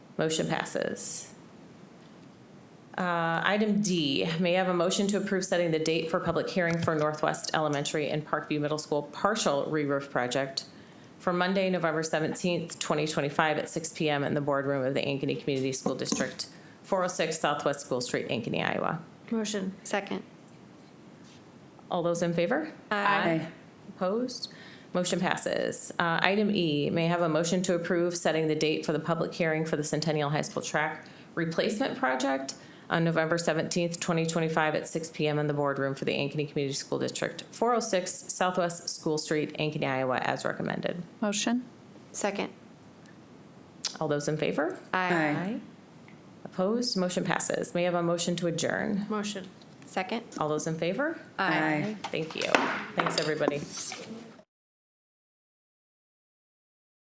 Motion passes. Uh, Item D, may I have a motion to approve setting the date for public hearing for Northwest Elementary and Parkview Middle School partial re-roof project for Monday, November 17th, 2025 at 6 PM in the boardroom of the Ankeny Community School District, 406 Southwest School Street, Ankeny, Iowa. Motion. Second. All those in favor? Aye. Opposed? Motion passes. Uh, Item E, may I have a motion to approve setting the date for the public hearing for the Centennial High School track replacement project on November 17th, 2025 at 6 PM in the boardroom for the Ankeny Community School District, 406 Southwest School Street, Ankeny, Iowa, as recommended. Motion? Second. All those in favor? Aye. Opposed? Motion passes. May I have a motion to adjourn? Motion. Second. All those in favor? Aye. Thank you. Thanks, everybody.